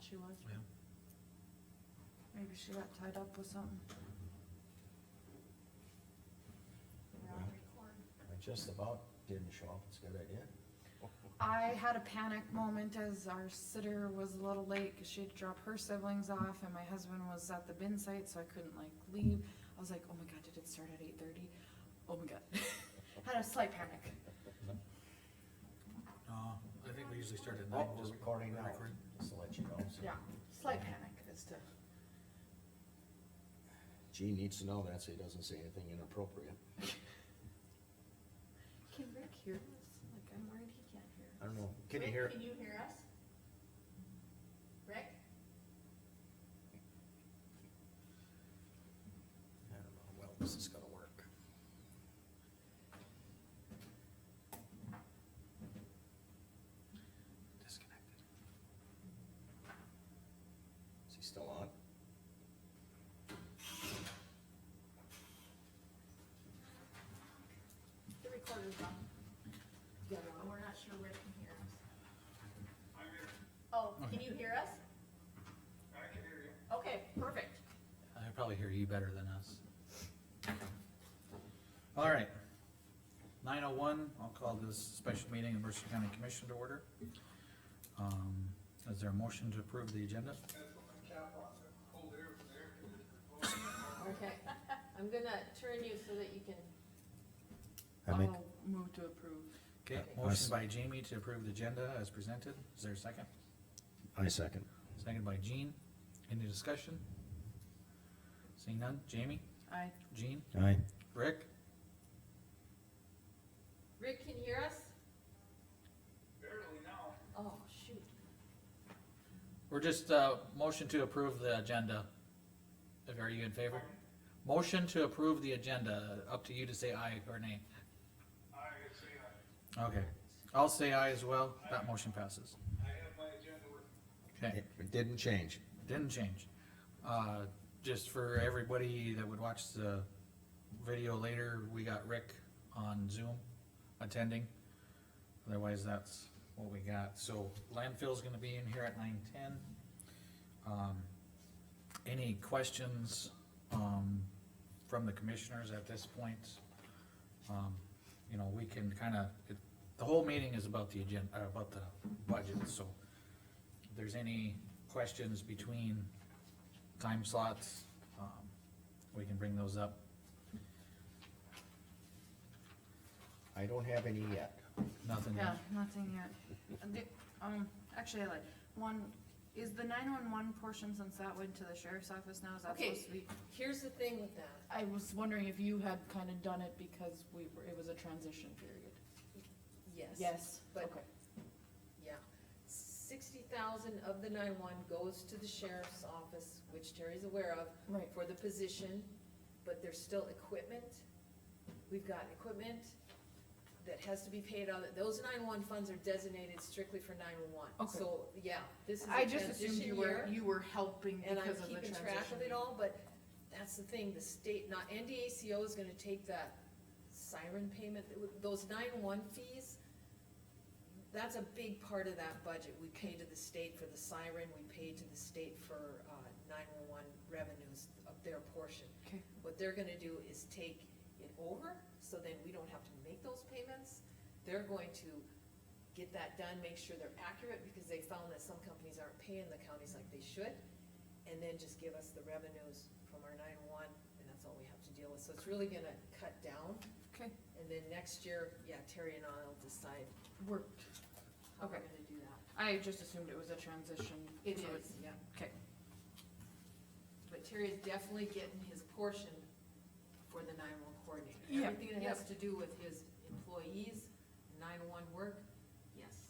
she was. Yeah. Maybe she got tied up with something. I just about didn't show up, it's a good idea. I had a panic moment as our sitter was a little late, cause she had to drop her siblings off, and my husband was at the bin site, so I couldn't like leave. I was like, oh my god, did it start at eight thirty? Oh my god. Had a slight panic. No, I think we usually start at Oh, nine. we're just recording now, record. just to let you know. so. Yeah, slight panic as to, Gee needs to know that so he doesn't say anything inappropriate. can Rick hear this? Like, I'm worried he can't hear. I don't know, can you hear? Rick, can you hear us? Rick? I don't know, well, this is gonna work. Disconnected. Is he still on? The recorder's on, Yeah. but we're not sure Rick can hear us. Oh, can you hear us? I can hear you. Okay, perfect. I probably hear you better than us. All right. Nine oh one, I'll call this special meeting of Mercer County Commission to order. Um, is there a motion to approve the agenda? Okay, I'm gonna turn you so that you can, I make, I'll move to approve. Okay, Okay. motion by Jamie to approve the agenda as presented. Is there a second? I second. Second by Jean. Any discussion? Seeing none. Jamie? Aye. Jean? Aye. Rick? Rick can hear us? Barely now. Oh, shoot. We're just, uh, motion to approve the agenda. If- Are you in favor? Motion to approve the agenda, up to you to say aye or nay. I say I, Okay, I'll say aye as well, that motion passes. I have my agenda with Okay, It it didn't change. didn't change. Uh, just for everybody that would watch the video later, we got Rick on Zoom attending. Otherwise, that's what we got, so landfill's gonna be in here at nine ten. Um, any questions, um, from the commissioners at this point? Um, you know, we can kinda, it, the whole meeting is about the agenda, uh, about the budget, so if there's any questions between time slots, um, we can bring those up. I don't have any yet. Nothing, Yeah, nothing yet. And the- Um, actually, I like, one, is the nine-one-one portion, since that went to the sheriff's office now, is that Okay. supposed to be? Here's the thing with that. I was wondering if you had kind of done it because we, were- it was a transition period. Yes. Yes, But- okay. Yeah. Sixty thousand of the nine-one goes to the sheriff's office, which Terry's aware of, Right, for the position, but there's still equipment. We've got equipment that has to be paid out, of- those nine-one funds are designated strictly for nine-one. Okay. So, yeah, this is a I transition just assumed you were, year. you were helping and I'm because of the keeping transition. track of it all, but that's the thing, the state, not, NDACO is gonna take that siren payment, that would- those nine-one fees, that's a big part of that budget, we pay to the state for the siren, we pay to the state for, uh, nine-one-one revenues of their portion. Okay. What they're gonna do is take it over, so then we don't have to make those payments, they're going to get that done, make sure they're accurate, because they found that some companies aren't paying the counties like they should and then just give us the revenues from our nine-one, and that's all we have to deal with, so it's really gonna cut down, Okay, and then next year, yeah, Terry and I'll decide worked. how we're Okay. gonna do that. I just assumed it was a transition. so Yeah, Okay, but Terry is definitely getting his portion for the nine-one coordinator, Yeah, everything that has to do with his employees, nine-one work, yes.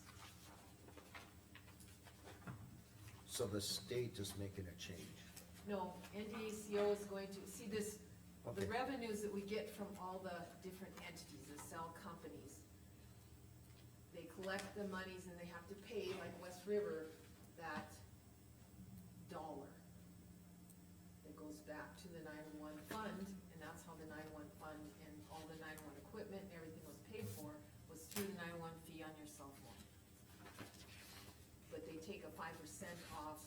So the state is making a change. No, NDACO is going to, see this, the Okay, revenues that we get from all the different entities that sell companies, they collect the monies and they have to pay, like West River, that dollar that goes back to the nine-one fund, and that's how the nine-one fund and all the nine-one equipment and everything was paid for, was through the nine-one fee on your cell phone. But they take a five percent off